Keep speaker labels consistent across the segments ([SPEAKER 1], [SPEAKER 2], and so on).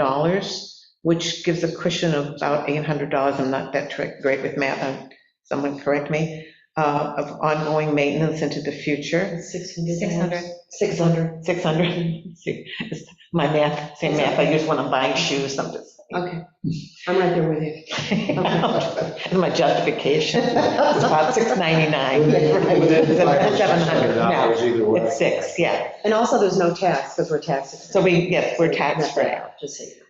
[SPEAKER 1] $600, which gives a cushion of about $800. I'm not that tr- great with math, uh, someone correct me, uh, of ongoing maintenance into the future.
[SPEAKER 2] Six hundred.
[SPEAKER 3] Six hundred.
[SPEAKER 2] Six hundred.
[SPEAKER 1] 600, see, it's my math, same math I use when I'm buying shoes, I'm just.
[SPEAKER 2] Okay, I'm right there with you.
[SPEAKER 1] My justification, it's about 699.
[SPEAKER 4] Within- within five or six hundred
[SPEAKER 1] 700, no,
[SPEAKER 4] dollars either way.
[SPEAKER 1] it's six, yeah.
[SPEAKER 2] And also, there's no tax, because we're taxed.
[SPEAKER 1] So we, yes, we're tax-free.
[SPEAKER 2] Just so you know.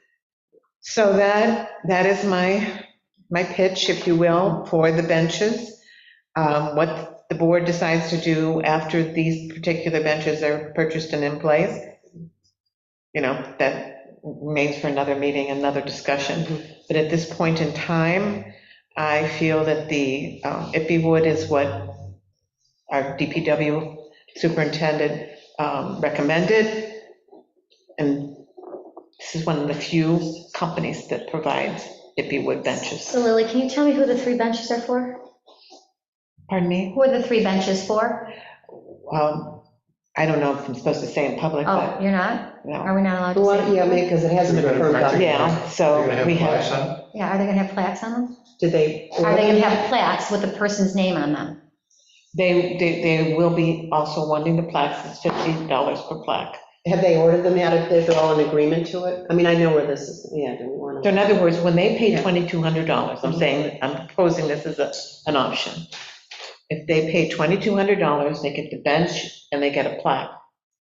[SPEAKER 1] So that, that is my, my pitch, if you will, for the benches. Um, What the board decides to do after these particular benches are purchased and in place, you know, that remains for another meeting, another discussion. But at this point in time, I feel that the um, Ippy wood is what our DPW superintendent um, recommended. And this is one of the few companies that provides Ippy wood benches.
[SPEAKER 3] So Lily, can you tell me who the three benches are for?
[SPEAKER 1] Pardon me?
[SPEAKER 3] Who are the three benches for?
[SPEAKER 1] Um, I don't know if I'm supposed to say in public,
[SPEAKER 3] Oh,
[SPEAKER 1] but
[SPEAKER 3] you're not?
[SPEAKER 1] no.
[SPEAKER 3] Are we not allowed
[SPEAKER 2] You
[SPEAKER 3] to
[SPEAKER 2] want-
[SPEAKER 3] say?
[SPEAKER 2] Yeah, because it hasn't been approved. on-
[SPEAKER 1] Yeah,
[SPEAKER 4] You're
[SPEAKER 1] so
[SPEAKER 4] gonna have
[SPEAKER 1] we
[SPEAKER 4] five,
[SPEAKER 1] have,
[SPEAKER 4] son?
[SPEAKER 3] Yeah, are they gonna have plaques on them?
[SPEAKER 2] Did they?
[SPEAKER 3] Are they gonna have plaques with the person's name on them?
[SPEAKER 1] they, they, they will be also wanting the plaques, it's $50 per plaque.
[SPEAKER 2] Have they ordered them out, if they're all in agreement to it? I mean, I know where this is, yeah, do we want
[SPEAKER 1] So
[SPEAKER 2] to?
[SPEAKER 1] in other words, when they pay
[SPEAKER 2] Yeah.
[SPEAKER 1] $2,200, I'm saying, I'm proposing this as a, an option. If they pay $2,200, they get the bench and they get a plaque,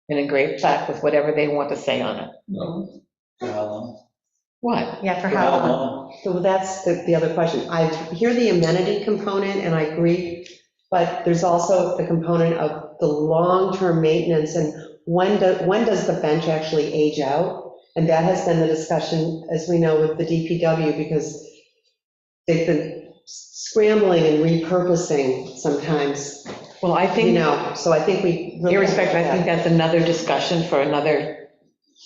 [SPEAKER 1] an engraved plaque with whatever they want to say on it.
[SPEAKER 3] Mhm.
[SPEAKER 4] um,
[SPEAKER 1] What?
[SPEAKER 3] Yeah, for how long?
[SPEAKER 2] So that's the, the other question. I hear the amenity component, and I agree, but there's also the component of the long-term maintenance, and when do, when does the bench actually age out? And that has been the discussion, as we know, with the DPW, because they've been scrambling and repurposing sometimes,
[SPEAKER 1] Well, I
[SPEAKER 2] you
[SPEAKER 1] think,
[SPEAKER 2] know, so I think we. really-
[SPEAKER 1] irrespective, I think that's another discussion for another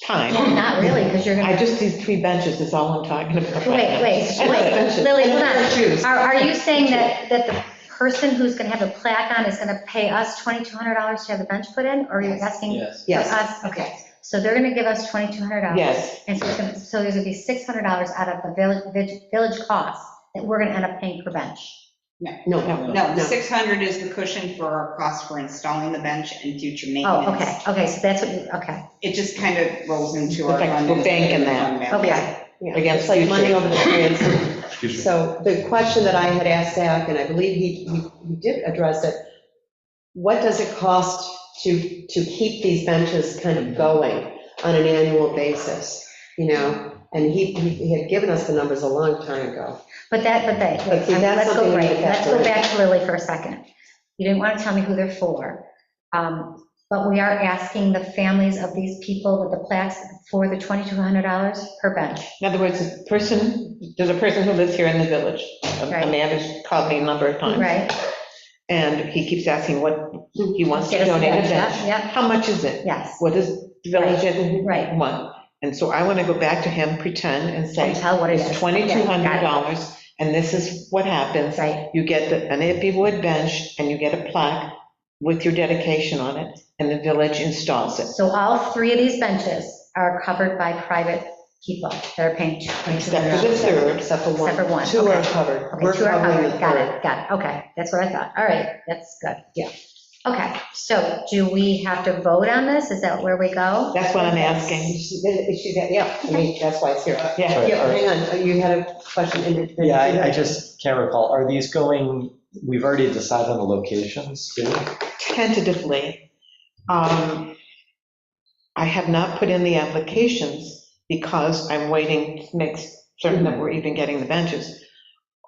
[SPEAKER 3] Yeah,
[SPEAKER 1] time.
[SPEAKER 3] Not really, because you're
[SPEAKER 1] I
[SPEAKER 3] gonna,
[SPEAKER 1] just, these three benches is all I'm talking about.
[SPEAKER 3] wait, wait, wait, Lily,
[SPEAKER 2] And a
[SPEAKER 3] hold
[SPEAKER 2] pair
[SPEAKER 3] on.
[SPEAKER 2] of shoes.
[SPEAKER 3] Are, are you saying that, that the person who's gonna have a plaque on is gonna pay us twenty-two hundred dollars to have a bench put in, or you're asking
[SPEAKER 5] Yes.
[SPEAKER 3] for
[SPEAKER 2] Yes,
[SPEAKER 3] us? Okay, so they're gonna give us twenty-two hundred dollars.
[SPEAKER 1] Yes,
[SPEAKER 3] And so it's gonna, so there's gonna be six hundred dollars out of the village, village- village cost that we're gonna end up paying per bench.
[SPEAKER 2] no,
[SPEAKER 6] No, 600 is the cushion for our cost for installing the bench and future maintenance.
[SPEAKER 3] Oh, okay, okay, so that's what you, okay,
[SPEAKER 6] It just kind of rolls into our.
[SPEAKER 1] It's like
[SPEAKER 6] fund
[SPEAKER 1] we're banking
[SPEAKER 6] fund
[SPEAKER 1] that.
[SPEAKER 6] balance.
[SPEAKER 3] okay.
[SPEAKER 2] yeah.
[SPEAKER 1] Against
[SPEAKER 2] It's like money
[SPEAKER 1] future.
[SPEAKER 2] over the transom.
[SPEAKER 4] Excuse me.
[SPEAKER 2] So the question that I had asked Zach, and I believe he, he- he did address it, what does it cost to, to keep these benches kind of going on an annual basis, you know? And he, he he had given us the numbers a long time ago.
[SPEAKER 3] But that, but that,
[SPEAKER 2] But see, that's
[SPEAKER 3] let's go,
[SPEAKER 2] something we
[SPEAKER 3] right,
[SPEAKER 2] need to
[SPEAKER 3] let's go
[SPEAKER 2] factor in.
[SPEAKER 3] back to Lily for a second. You didn't want to tell me who they're for. Um, But we are asking the families of these people with the plaques for the $2,200 per bench.
[SPEAKER 1] in other words, a person, there's a person who lives here in the village.
[SPEAKER 3] Right.
[SPEAKER 1] Amanda's called me a number of times.
[SPEAKER 3] Right,
[SPEAKER 1] And he keeps asking what, he wants to
[SPEAKER 3] Get us the
[SPEAKER 1] donate a
[SPEAKER 3] bench, yeah,
[SPEAKER 1] bench.
[SPEAKER 3] yeah.
[SPEAKER 1] How much is it?
[SPEAKER 3] yes,
[SPEAKER 1] What does the village
[SPEAKER 3] right.
[SPEAKER 1] want? And so I want to go back to him, pretend and
[SPEAKER 3] And
[SPEAKER 1] say,
[SPEAKER 3] tell what it
[SPEAKER 1] it's
[SPEAKER 3] is. Yeah, got
[SPEAKER 1] $2,200 and this is what
[SPEAKER 3] it.
[SPEAKER 1] happens.
[SPEAKER 3] Right,
[SPEAKER 1] You get the- an Ippy wood bench and you get a plaque with your dedication on it and the village installs it.
[SPEAKER 3] so all three of these benches are covered by private people that are paying $2,200.
[SPEAKER 1] Except for the third,
[SPEAKER 2] Except for one.
[SPEAKER 3] Except for one,
[SPEAKER 2] Two are
[SPEAKER 3] okay.
[SPEAKER 2] covered.
[SPEAKER 3] Okay,
[SPEAKER 2] We're
[SPEAKER 3] two are
[SPEAKER 2] covering the
[SPEAKER 3] covered, got
[SPEAKER 2] third.
[SPEAKER 3] it, got it, okay, that's what I thought, all right, that's good.
[SPEAKER 2] Yeah.
[SPEAKER 3] Okay, so do we have to vote on this, is that where we go?
[SPEAKER 1] That's what I'm asking.
[SPEAKER 2] She- she- yeah, I mean, that's why it's here.
[SPEAKER 1] Yeah.
[SPEAKER 2] Yeah, hang on, you had a question. in it.
[SPEAKER 5] Yeah, I, I just can't recall. Are these going, we've already decided on the locations too?
[SPEAKER 1] tentatively. Um, I have not put in the applications because I'm waiting to make certain that we're even getting the benches.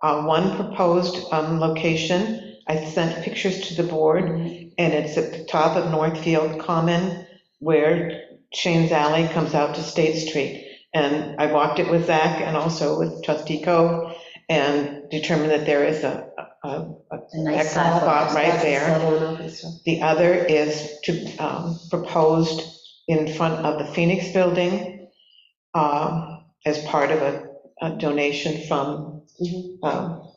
[SPEAKER 1] Uh, One proposed um, location, I sent pictures to the board, and it's at the top of Northfield Common where Shane's Alley comes out to State Street. And I walked it with Zach and also with trustee Cove and determined that there is a, a- a
[SPEAKER 3] A nice
[SPEAKER 1] excellent
[SPEAKER 3] spot.
[SPEAKER 1] spot right there.
[SPEAKER 2] Level and all that stuff.
[SPEAKER 1] The other is to, um, proposed in front of the Phoenix Building um, as part of a a donation from,
[SPEAKER 2] Mhm.
[SPEAKER 1] um,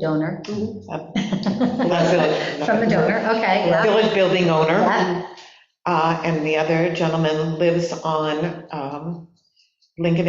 [SPEAKER 3] Donor.
[SPEAKER 2] Mhm.
[SPEAKER 3] Mm-hmm. From the donor, okay, yeah,
[SPEAKER 1] village building owner.
[SPEAKER 3] yeah,
[SPEAKER 1] Uh, And the other gentleman lives on um, Lincoln